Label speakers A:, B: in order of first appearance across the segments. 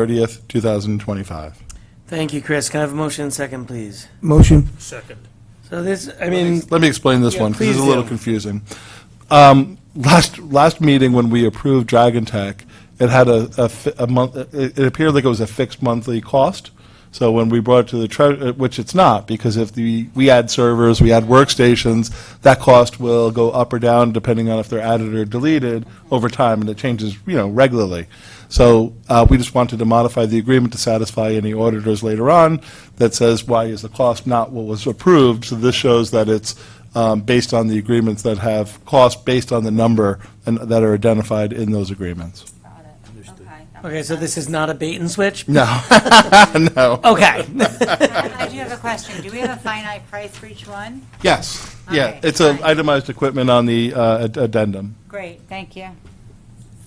A: 30th, 2025.
B: Thank you, Chris. Can I have a motion and second, please?
C: Motion.
D: Second.
B: So this, I mean,
A: Let me explain this
B: Yeah,
A: one, because it's a
B: please
A: little
B: do.
A: confusing. Um, Last, last meeting, when we approved Dragon Tech, it had a, a fi- a month, it it appeared like it was a fixed monthly cost. So when we brought it to the treasurer, which it's not, because if the, we add servers, we add workstations, that cost will go up or down depending on if they're added or deleted over time, and it changes, you know, regularly. So uh, we just wanted to modify the agreement to satisfy any auditors later on that says, why is the cost not what was approved? So this shows that it's um, based on the agreements that have costs based on the number and that are identified in those agreements.
E: Got it. Okay. that
B: okay,
E: makes
B: so this is not a bait and switch?
A: No, no.
B: Okay.
E: sense. I do have a question. Do we have a finite price for each one?
A: Yes, yeah,
E: Okay,
A: it's a
E: fine.
A: itemized equipment on the uh, ad- addendum,
E: Great, thank you.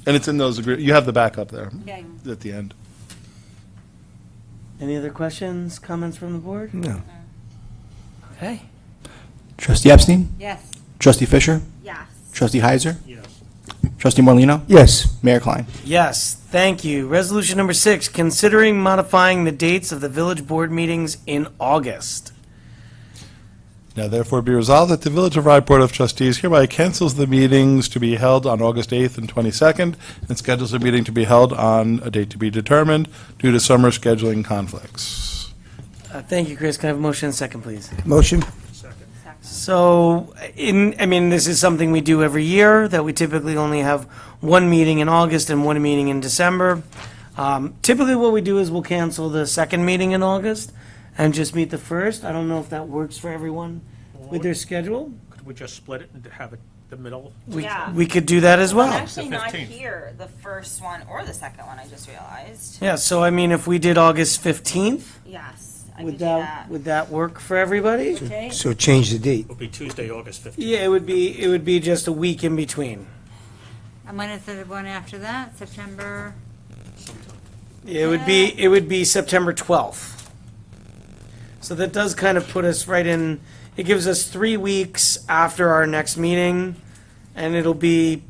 A: and it's in those agree, you have the backup there
E: Okay.
A: at the end.
B: Any other questions, comments from the board?
C: No.
B: Okay.
F: Trustee Epstein?
E: Yes.
F: Trustee Fisher?
E: Yes.
F: Trustee Heiser?
D: Yes.
F: Trustee Morlino,
C: Yes.
F: Mayor Klein?
B: Yes, thank you. Resolution number six, considering modifying the dates of the village board meetings in August.
A: Now therefore be resolved that the Village of Rye Board of Trustees hereby cancels the meetings to be held on August 8th and 22nd and schedules a meeting to be held on a date to be determined due to summer scheduling conflicts.
B: Uh, Thank you, Chris. Can I have a motion and second, please?
C: Motion.
D: Second.
B: So, in, I mean, this is something we do every year, that we typically only have one meeting in August and one meeting in December. Um, Typically, what we do is we'll cancel the second meeting in August and just meet the first. I don't know if that works for everyone with their schedule.
D: Could we just split it and have it the middle?
B: We,
E: Yeah.
B: we could do that as
E: I'm
B: well.
E: actually
D: The
E: not
D: 15th.
E: here, the first one or the second one, I just realized.
B: Yeah, so I mean, if we did August 15th,
E: Yes, I could
B: would
E: do
B: that,
E: that.
B: would that work for everybody?
E: Okay.
C: So change the date.
D: It'll be Tuesday, August 15th.
B: Yeah, it would be, it would be just a week in between.
E: And when is the one after that, September?
B: It would be, it would be September 12th. So that does kind of put us right in, it gives us three weeks after our next meeting, and it'll be,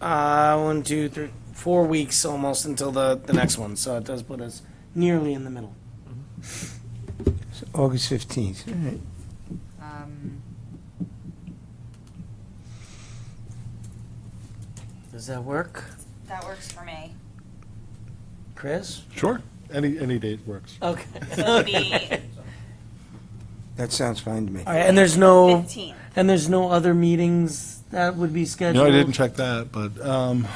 B: uh, one, two, three, four weeks almost until the, the next one, so it does put us nearly in the middle.
C: So August 15th. All right.
E: Um,
B: Does that work,
E: That works for me.
B: Chris?
A: Sure. Any, any date works.
B: Okay.
E: So it'd be
C: That sounds fine to me.
B: All right, and there's no,
E: 15th.
B: and there's no other meetings that would be
A: No,
B: scheduled?
A: I didn't check that, but, um,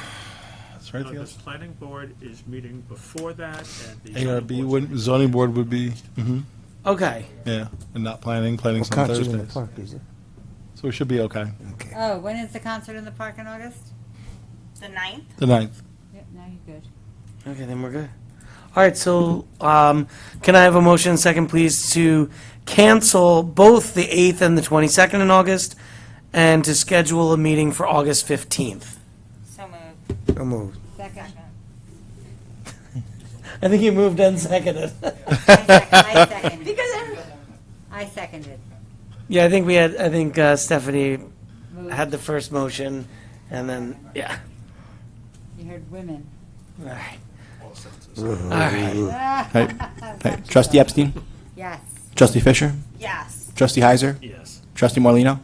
A: is there anything
D: Uh, The
A: else?
D: planning board is meeting before that, and the. zoning
A: ARB,
D: board's
A: wouldn't- zoning board would be, mhm,
B: Okay.
A: yeah, and not planning, planning's
C: Well,
A: on
C: concert in the
A: Thursdays.
C: park, is it?
A: So we should be okay.
C: Okay.
E: Oh, when is the concert in the park in August? The ninth?
A: The ninth.
E: Yep, now you're good.
B: Okay, then we're good. All right, so um, can I have a motion second, please, to cancel both the 8th and the 22nd in August and to schedule a meeting for August 15th?
E: So moved.
C: So moved.
E: Second.
B: I think you moved and seconded.
E: I second- I seconded. I seconded.
B: Yeah, I think we had, I think uh, Stephanie had the first motion and then, yeah.
E: You heard women.
B: All right.
F: Right. Trustee Epstein?
E: Yes.
F: Trustee Fisher?
E: Yes.
F: Trustee Heiser?
D: Yes.
F: Trustee Morlino,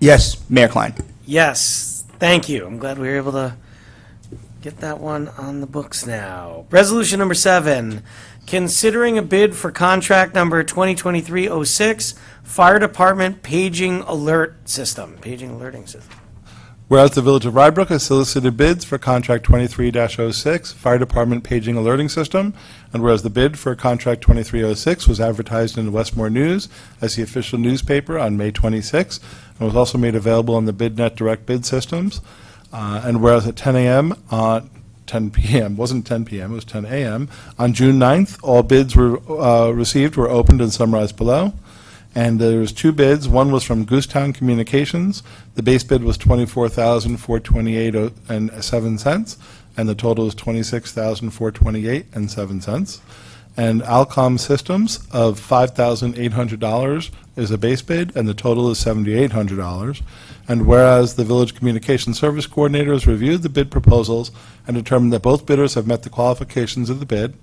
C: Yes.
F: Mayor Klein?
B: Yes, thank you. I'm glad we were able to get that one on the books now. Resolution number seven, considering a bid for contract number 2023-06, Fire Department Paging Alert System, Paging Alerting System.
A: Whereas the Village of Rybrook has solicited bids for Contract 23-06 Fire Department Paging Alerting System, and whereas the bid for Contract 2306 was advertised in the Westmore News as the official newspaper on May 26, and was also made available on the BidNet Direct Bid Systems, uh, and whereas at 10 a.m., uh, 10 p.m., wasn't 10 p.m., it was 10 a.m., on June 9th, all bids were uh, received were opened and summarized below. And there was two bids. One was from Goostown Communications. The base bid was twenty-four thousand, four twenty-eight and seven cents, and the total was twenty-six thousand, four twenty-eight and seven cents. And Alcom Systems of five thousand, eight hundred dollars is a base bid, and the total is seventy-eight hundred dollars. And whereas the Village Communication Service Coordinator has reviewed the bid proposals and determined that both bidders have met the qualifications of the bid,